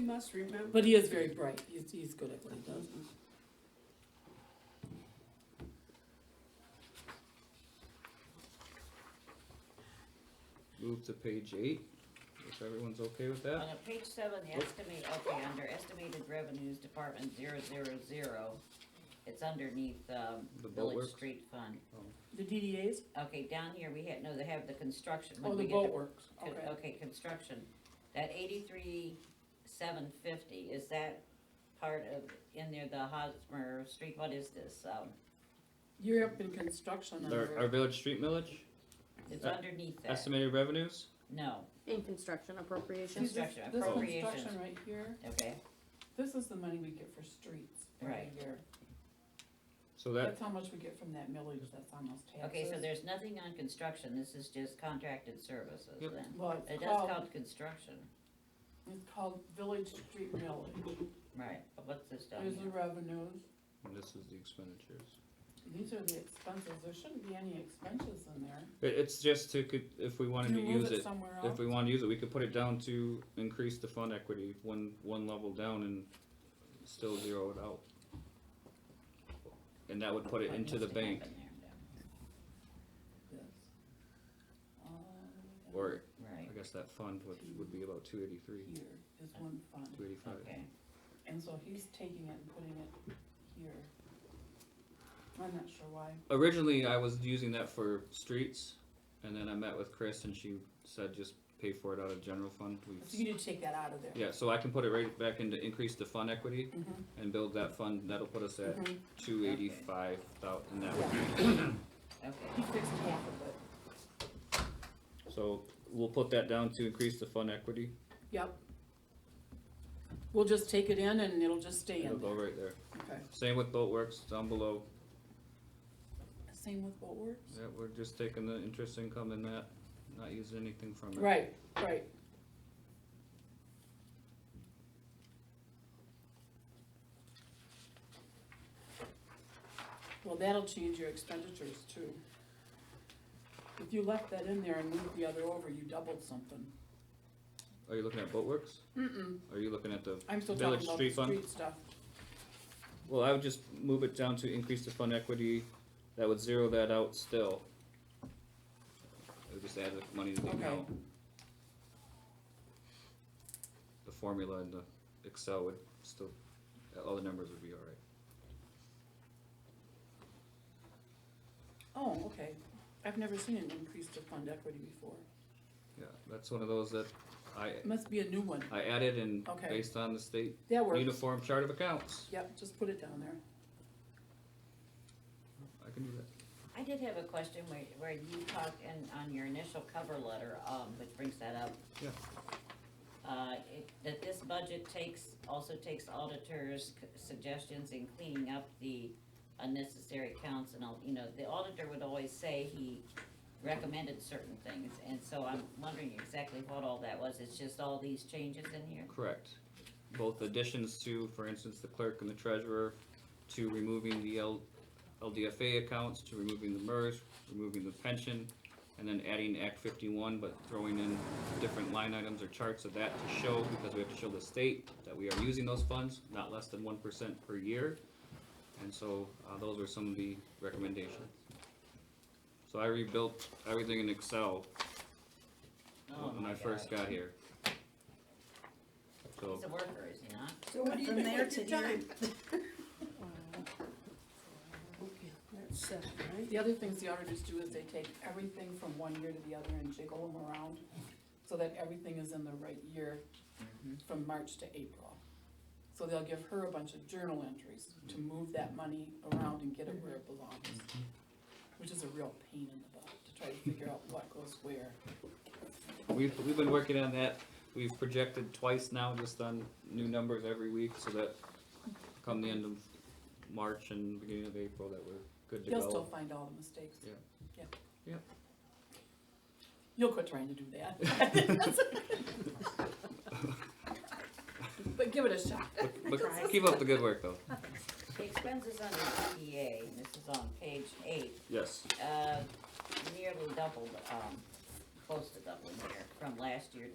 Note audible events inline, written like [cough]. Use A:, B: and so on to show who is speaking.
A: must remember.
B: But he is very bright, he's, he's good at what he does.
C: Move to page eight, if everyone's okay with
D: On
C: that.
D: a page seven, the estimate, okay, under estimated revenues, department zero zero zero, it's underneath, um,
C: The boat
D: village
C: works?
D: street fund.
B: The DDAs,
D: Okay, down here, we had, no, they have the construction,
B: oh,
D: when
B: the
D: we get
B: boat
D: the,
B: works,
D: con-
B: okay.
D: okay, construction, that eighty-three seven fifty, is that part of, in there, the Hosmer Street, what is this, um,
B: You're up in construction
C: Our, our
B: under,
C: village street millage,
D: it's
C: Uh,
D: underneath that,
C: estimated revenues,
D: no,
E: In construction appropriations.
B: this, this
D: construction, appropriations.
B: construction right here,
D: okay,
A: This is the money we get for streets every
D: Right.
A: year.
C: so that,
A: That's how much we get from that millage that's on those taxes.
D: okay, so there's nothing on construction, this is just contracted services
C: Yep.
D: then.
A: Well,
D: It
A: it's
D: does
A: called,
D: count construction,
A: it's called village street millage.
D: right, but what's this down
A: There's the
D: here?
A: revenues.
C: and this is the expenditures.
A: These are the expenses. There shouldn't be any expenses in there.
C: It, it's just to, could, if we wanted
A: Can
C: to
A: you move
C: use it,
A: somewhere
C: if
A: else?
C: we wanted to use it, we could put it down to increase the fund equity, one, one level down and still zero it out. And that would put it
D: What
C: into
D: needs
C: the
D: to
C: bank,
D: happen there,
A: Um,
C: or
D: yeah.
C: I
D: Right,
C: guess that fund would, would be about two eighty-three,
A: Here is one
C: two
A: fund.
C: eighty-five.
D: okay,
A: And so he's taking it and putting it here. I'm not sure why.
C: Originally, I was using that for streets, and then I met with Chris and she said just pay for it out of general fund. We've
B: so you need to take that out of there.
C: Yeah, so I can put it right back into increase the fund equity
A: Mhm.
C: and build that fund, that'll put us
B: Mm-hmm.
C: at
A: Mhm.
C: two eighty-five thousand, that would
A: Yeah,
D: okay.
A: He fixed half of it.
C: So we'll put that down to increase the fund equity,
B: Yep. We'll just take it in and it'll just stay
C: it'll
B: in
C: go
B: there.
C: right there.
A: Okay.
C: Same with boat works down below,
A: Same with what works?
C: yeah, we're just taking the interest income in that, not using anything from it.
B: Right, right. Well, that'll change your expenditures too. If you left that in there and moved the other over, you doubled something.
C: Are you looking at boat works?
B: Mm-mm,
C: Are you looking at the,
B: I'm still
C: Village
B: talking about the
C: street fund?
B: street stuff.
C: well, I would just move it down to increase the fund equity, that would zero that out still. It would just add the money to the
B: Okay.
C: account. The formula in the Excel would still, all the numbers would be alright.
B: Oh, okay. I've never seen an increase to fund equity before.
C: Yeah, that's one of those that I,
B: Must be a new one.
C: I added and
B: Okay.
C: based on the state
B: That works.
C: uniform chart of accounts,
B: Yep, just put it down there.
C: I can do that.
D: I did have a question where, where you talk in, on your initial cover letter, um, which brings that up.
C: Yeah.
D: Uh, it, that this budget takes, also takes auditors' c- suggestions in cleaning up the unnecessary counts and all, you know, the auditor would always say he recommended certain things, and so I'm wondering exactly what all that was, it's just all these changes in here?
C: Correct. Both additions to, for instance, the clerk and the treasurer, to removing the L, LDFA accounts, to removing the MERS, removing the pension, and then adding Act fifty-one, but throwing in different line items or charts of that to show, because we have to show the state that we are using those funds, not less than one percent per year. And so, uh, those were some of the recommendations. So I rebuilt everything in Excel
D: Oh
C: when I
D: my
C: first
D: God.
C: got here. So.
D: He's a worker, is he not?
F: So what do you
A: From
F: do
A: there
F: with your
A: to here.
F: time? Okay, that's seven, right?
A: The other things the auditors do is they take everything from one year to the other and jiggle them around so that everything is in the right year from March to April. So they'll give her a bunch of journal entries to move that money around and get it where it belongs, which is a real pain in the butt to try to figure out what goes where.
C: We've, we've been working on that, we've projected twice now, just on new numbers every week, so that come the end of March and beginning of April, that we're good to
A: You'll still
C: go.
A: find all the mistakes.
C: Yeah.
A: Yeah.
C: Yeah.
A: You'll quit trying to do that. [laughs] But give it a shot.
C: But- But keep up the good work, though,
D: The expenses under DDA, and this is on page eight,
C: yes.
D: uh, nearly doubled, um, close to doubling here, from last year to